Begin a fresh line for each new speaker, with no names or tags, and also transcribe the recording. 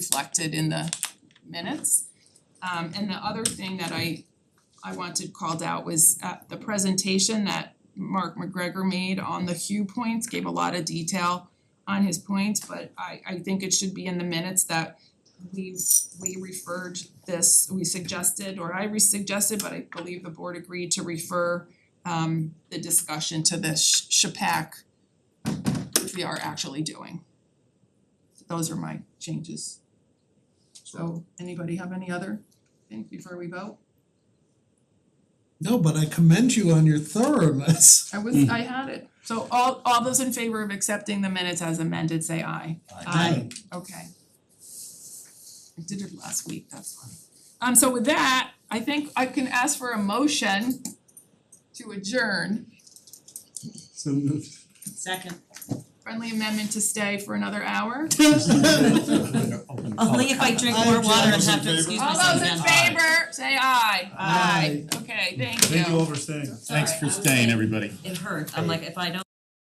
reflected in the minutes. Um and the other thing that I I wanted called out was uh the presentation that Mark McGregor made on the Hugh points, gave a lot of detail on his points, but I I think it should be in the minutes that we we referred this, we suggested, or I re-suggested, but I believe the board agreed to refer um the discussion to the Sh- Shapack, which we are actually doing. Those are my changes. So anybody have any other things before we vote?
No, but I commend you on your thoroughness.
I was, I had it. So all all those in favor of accepting the minutes as amended, say aye. Okay. I did it last week, that's why. Um so with that, I think I can ask for a motion to adjourn.
So moved.
Second.
Friendly amendment to stay for another hour.
Only if I drink more water and have to excuse
All
myself
those
again.
in favor, say aye.
Aye.
Okay,
Thank you all for staying.
Thanks
for staying, everybody.
It hurt, I'm like, if I don't